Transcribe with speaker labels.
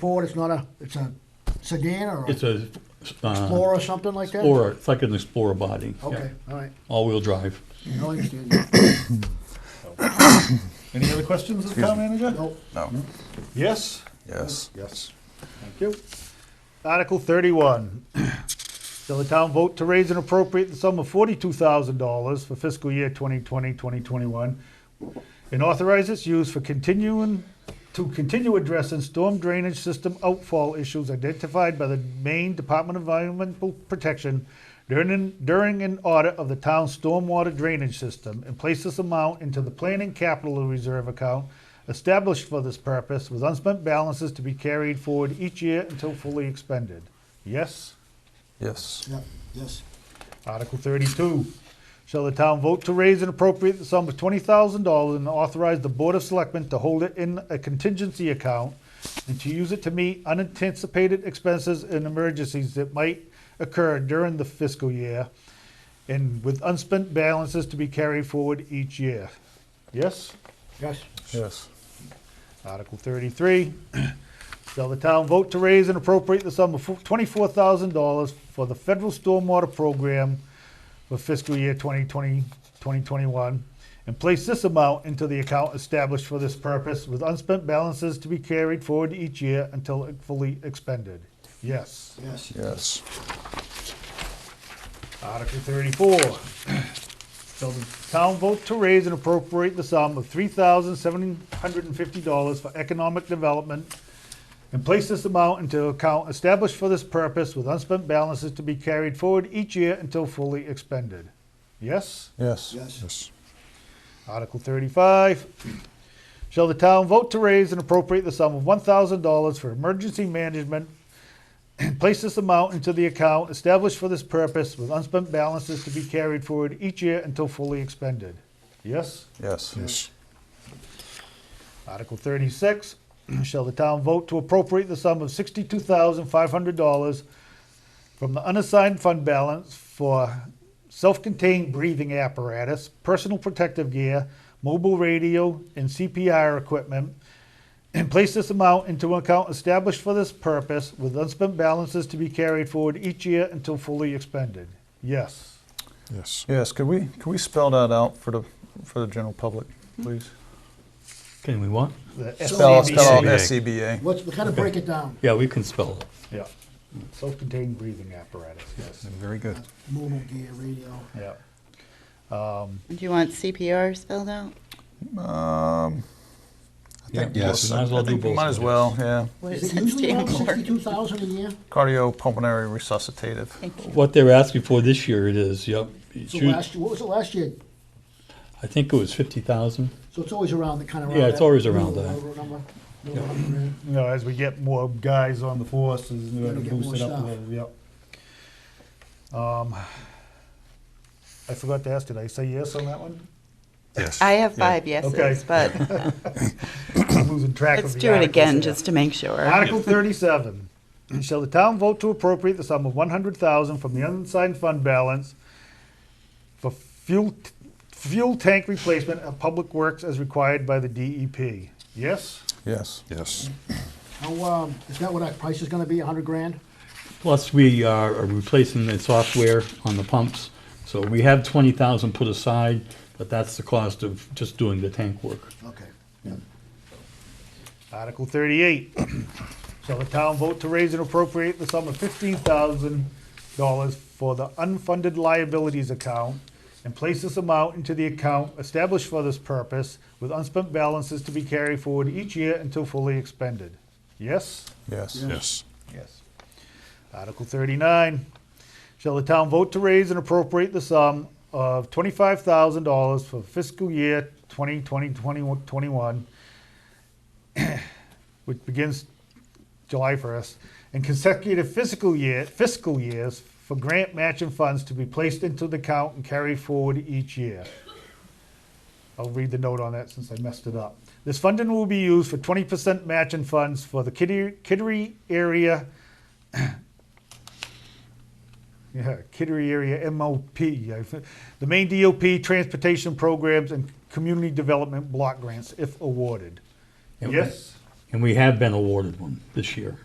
Speaker 1: Ford, it's not a, it's a sedan or a
Speaker 2: It's a. uh,
Speaker 1: Explorer or something like that?
Speaker 2: Explorer, it's like an Explorer body. yeah.
Speaker 1: Okay, all right.
Speaker 2: All-wheel drive.
Speaker 1: No, I understand.
Speaker 3: Any other questions of the town manager?
Speaker 1: No,
Speaker 4: No.
Speaker 3: Yes?
Speaker 4: Yes.
Speaker 3: Yes. Thank you. Article thirty-one, shall the town vote to raise an appropriate the sum of forty-two thousand dollars for fiscal year 2020-2021, and authorize its use for continuing, to continue addressing storm drainage system outfall issues identified by the Maine Department of Environmental Protection during, an- during an audit of the town's stormwater drainage system, and place this amount into the planning capital reserve account established for this purpose with unspent balances to be carried forward each year until fully expended. Yes?
Speaker 4: Yes.
Speaker 1: yeah, yes,
Speaker 3: Article thirty-two, shall the town vote to raise an appropriate sum of twenty thousand dollars and authorize the Board of Selectmen to hold it in a contingency account and to use it to meet unanticipated expenses and emergencies that might occur during the fiscal year and with unspent balances to be carried forward each year? Yes?
Speaker 1: yes,
Speaker 4: Yes.
Speaker 3: Article thirty-three, shall the town vote to raise and appropriate the sum of twenty-four thousand dollars for the federal stormwater program for fiscal year 2020, 2021, and place this amount into the account established for this purpose with unspent balances to be carried forward each year until fully expended? Yes.
Speaker 1: yes,
Speaker 4: Yes.
Speaker 3: Article thirty-four. Shall the town vote to raise and appropriate the sum of three thousand seven hundred and fifty dollars for economic development and place this amount into account established for this purpose with unspent balances to be carried forward each year until fully expended? Yes?
Speaker 4: Yes.
Speaker 1: Yes.
Speaker 3: Article thirty-five, shall the town vote to raise and appropriate the sum of one thousand dollars for emergency management and place this amount into the account established for this purpose with unspent balances to be carried forward each year until fully expended? Yes?
Speaker 4: Yes. Yes.
Speaker 3: Article thirty-six, shall the town vote to appropriate the sum of sixty-two thousand five hundred dollars from the unassigned fund balance for self-contained breathing apparatus, personal protective gear, mobile radio, and CPR equipment, and place this amount into an account established for this purpose with unspent balances to be carried forward each year until fully expended? Yes.
Speaker 5: Yes.
Speaker 4: Yes. Could we could we spell that out for the for the general public, please?
Speaker 2: Can we want?
Speaker 3: The
Speaker 4: Spell
Speaker 3: SCBA.
Speaker 4: spell out E
Speaker 2: SCBA.
Speaker 4: SCBA.
Speaker 1: What's, we kind of break it down,
Speaker 2: Yeah, we can spell it.
Speaker 3: Yeah. Self-contained breathing apparatus, yes.
Speaker 4: Very good.
Speaker 1: mobile gear, radio.
Speaker 3: Yeah.
Speaker 6: Do you want CPR spelled out?
Speaker 4: Um. I
Speaker 2: Yeah,
Speaker 4: think
Speaker 2: yes,
Speaker 4: yes.
Speaker 2: might as well
Speaker 4: I
Speaker 2: do
Speaker 4: think we
Speaker 2: both
Speaker 4: Might
Speaker 2: of
Speaker 4: as
Speaker 2: them.
Speaker 4: well. Yeah.
Speaker 6: What
Speaker 1: Is
Speaker 6: does
Speaker 1: it
Speaker 6: that
Speaker 1: usually around
Speaker 6: stand for?
Speaker 1: sixty-two thousand a year?
Speaker 4: Cardiopulmonary resuscitative.
Speaker 2: What they're asking for this year it is, yep. It's
Speaker 1: So
Speaker 2: u-
Speaker 1: last, year- what was it last year?
Speaker 2: I think it was fifty thousand.
Speaker 1: So it's always around the kind of.
Speaker 2: Yeah, it's always around that.
Speaker 1: that.
Speaker 3: you know, as we get more guys on the forces, we
Speaker 1: Gotta
Speaker 3: have to
Speaker 1: get
Speaker 3: boost
Speaker 1: more
Speaker 3: it up a
Speaker 1: staff.
Speaker 3: little, yep. Um, I forgot to ask, did I say yes on that one?
Speaker 5: Yes.
Speaker 6: I have five yeses, but
Speaker 3: I'm losing track of
Speaker 6: let's
Speaker 3: the
Speaker 6: do it
Speaker 3: articles
Speaker 6: again
Speaker 3: here.
Speaker 6: just to make sure.
Speaker 3: Article thirty-seven, shall the town vote to appropriate the sum of one hundred thousand from the unassigned fund balance for fuel, fuel tank replacement of public works as required by the DEP? Yes?
Speaker 4: Yes.
Speaker 5: Yes.
Speaker 1: How, um, is that what our price is gonna be, a hundred grand?
Speaker 2: Plus, we are replacing the software on the pumps. So we have twenty thousand put aside, but that's the cost of just doing the tank work.
Speaker 1: Okay.
Speaker 3: Article thirty-eight, shall the town vote to raise and appropriate the sum of fifteen thousand dollars for the unfunded liabilities account and place this amount into the account established for this purpose with unspent balances to be carried forward each year until fully expended? Yes?
Speaker 4: Yes.
Speaker 5: Yes.
Speaker 3: Yes. Article thirty-nine, shall the town vote to raise and appropriate the sum of twenty-five thousand dollars for fiscal year 2020 2021, which begins July first, and consecutive fiscal year, fiscal years for grant matching funds to be placed into the account and carried forward each year. I'll read the note on that since I messed it up. This funding will be used for twenty percent matching funds for the Kittery, Kittery area. Yeah, Kittery area MOP, I- the main DOP transportation programs and community development block grants if awarded.
Speaker 2: Yeah.
Speaker 3: Yes?
Speaker 2: And we have been awarded one this year.